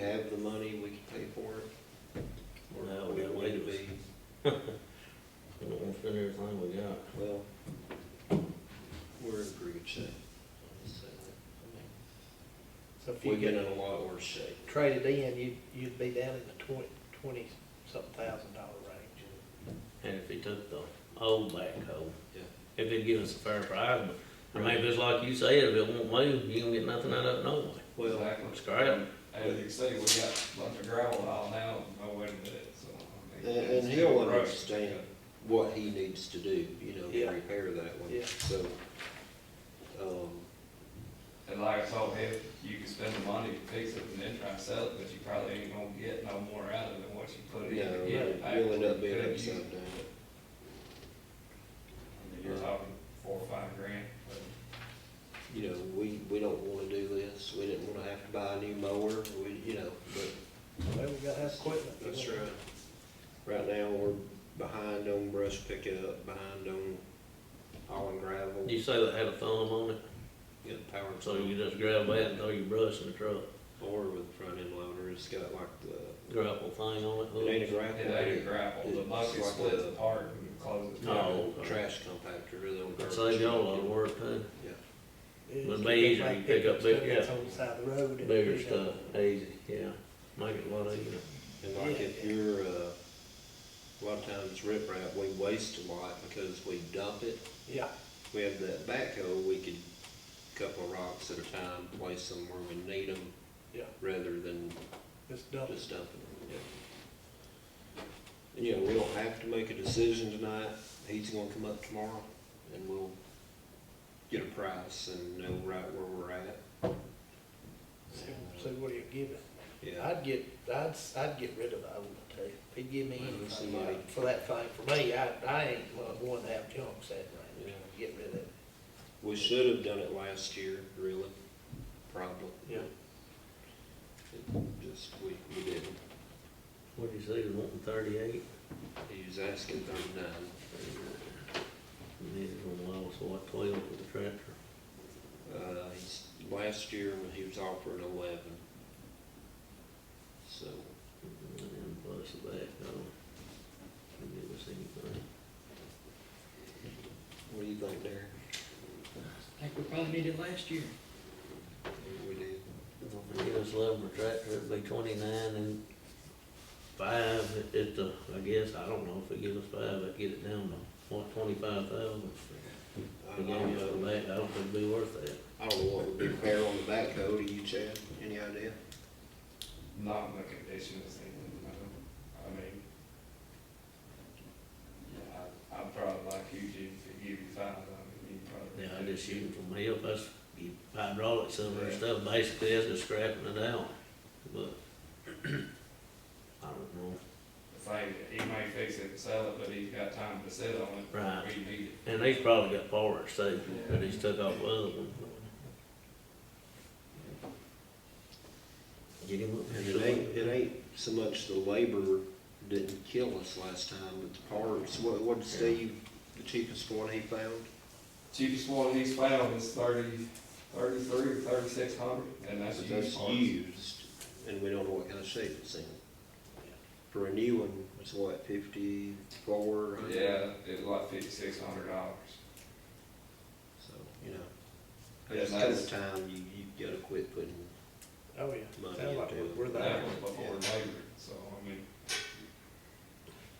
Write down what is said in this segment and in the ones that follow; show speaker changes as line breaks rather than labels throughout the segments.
have the money, we can pay for it? Or
No,
would
we
it
don't
need to
need
be-
We don't want to spend everything we got.
Well, we're in pretty good shape. I'll just say that.
So if
I mean,
you
We've been
could
in a lot worse shape.
trade it in, you'd, you'd be down in the twenty, twenty-something thousand dollar range.
And if he took the old backhoe,
Yeah.
if they'd give us a fair price, but, I mean, if it's like you said, if it won't move, you don't get nothing out of it no way.
Well,
Exactly.
It's great.
As you see, we got a bunch of gravel all now, no way to do it, so. I
and,
mean,
and
it's
he'll
still rough.
understand what he needs to do, you know, to
Yeah.
repair that one,
Yeah.
so. Um,
And like I told him, you can spend the money to fix it and then try to sell it, but you probably ain't gonna get no more out of it than what you
no,
put in. to get it back.
you'll end up being
Could you-
upside down.
I mean, You're talking four or five grand, but
You know, we, we don't wanna do this, we didn't wanna have to buy a new mower, we, you know, but
Well, we gotta have equipment.
That's right. Right now, we're behind on brush pickup, behind on hauling gravel,
You say that had a thumb on it,
getting power
so
tools,
you just grab that and throw your brush in the truck,
or with front end loader, it's got like the,
grapple thing on it.
it ain't
hooks.
a gravel.
it ain't a
but
gravel, the
It's
bucket
like
splits
a-
apart and closes.
it's got a
No. Oh, okay.
Trash compactor, really on
It'd
garbage.
Save y'all a lot of work too,
Yeah,
It's
Would be
like
easier, you
big
pick up
stuff
big- yeah.
that's On the side of the road. and
bigger
pick up.
stuff, easy, yeah, make it a lot easier.
and like
Yeah.
if you're, uh, a lot of times rip wrap, we waste a lot because we dump it.
Yeah,
We have that backhoe, we could couple of rocks at a time, place them where we need them,
yeah,
rather than
just dump it.
Just dumping it, yeah. And, you know, we don't have to make a decision tonight, he's gonna come up tomorrow, and we'll get a price and know right where we're at.
See see what he'll give it.
Yeah,
I'd get, I'd, I'd get rid of the old, I tell you. If he'd give me
Well,
anything
somebody-
uh, for that thing, for me, I, I ain't one- one to have junk sitting around.
Yeah.
Get rid of it.
we should have done it last year, really, probably.
Yeah.
It Just, we, we didn't,
What'd you say, one thirty-eight?
he was asking thirty-nine,
And then one lost, what, twelve for the tractor?
uh, he's, last year, when he was offering eleven. So,
And then plus the backhoe. Didn't give us anything.
what do you think, Darren?
I think we probably needed last year.
We did.
If they Give us eleven for tractor, it'd be twenty-nine and five at- at the, I guess, I don't know, if they give us five, I'd get it down to, what, twenty-five thousand?
I
If they
don't
give us
know.
the back, I don't think it'd be worth that.
I don't know what would be fair on the backhoe, do you, Chad? Any idea?
Not in the condition it's in, no. I mean. Yeah, I, I'd probably like you to, to give you five, I mean, you probably.
Yeah, I just shoot from hell, that's, you hydraulic some of that stuff, basically, that's just scrapping it out, but I don't know.
It's like, he may fix it and sell it, but he's got time to sit on it.
Right.
We need it.
And they've probably got parts too, that he's took off the other one. Get him up
And
here.
it ain't, it ain't so much the labor didn't kill us last time, but the parts, what, what did Steve, the cheapest one he found?
Cheapest one he's found is thirty, thirty-three, or thirty-six hundred, and that's
But
used
That's
parts.
used, and we don't know what kind of shape it's in. For a new one, it's what, fifty-four?
Yeah, it was like fifty-six hundred dollars.
So, you know,
Yeah,
there's
and
come a
that's,
time you, you gotta quit putting,
Oh, yeah.
Money
Sound like
into it.
we're there.
that was before labor, so, I mean.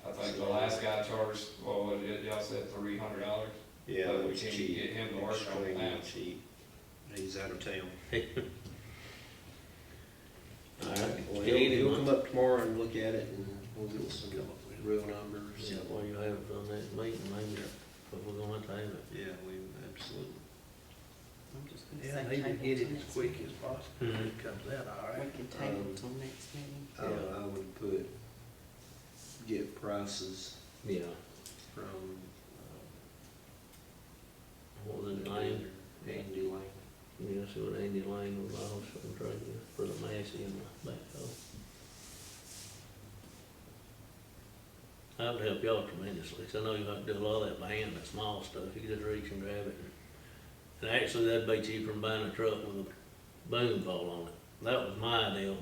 I think the last guy charged, well, what did y'all said three hundred dollars?
yeah,
But
it
we
was
can't
cheap,
get him to work on
extremely
that.
cheap. He's out of town.
All
Well,
right,
he'll,
get him
he'll
up.
come up tomorrow and look at it and we'll get some
Come up with it.
real numbers.
Yeah, well, you have it on that meeting, maybe, but we're gonna have to have it.
Yeah, we, absolutely.
I'm just
Yeah,
gonna
they
say
can
table
get it
till
as
next
quick
meeting.
as possible, if it comes out all right.
We can
Um,
table till next meeting.
I, I would put, get prices
Yeah.
from.
What was his
uh,
name?
Andy Lane.
Yeah, see what Andy Lane was also trying to, for the Massey and the backhoe. That would help y'all tremendously, 'cause I know you like to do a lot of that by hand, that small stuff, you just reach and grab it. And actually, that'd be cheaper than buying a truck with a boom pole on it. That was my deal,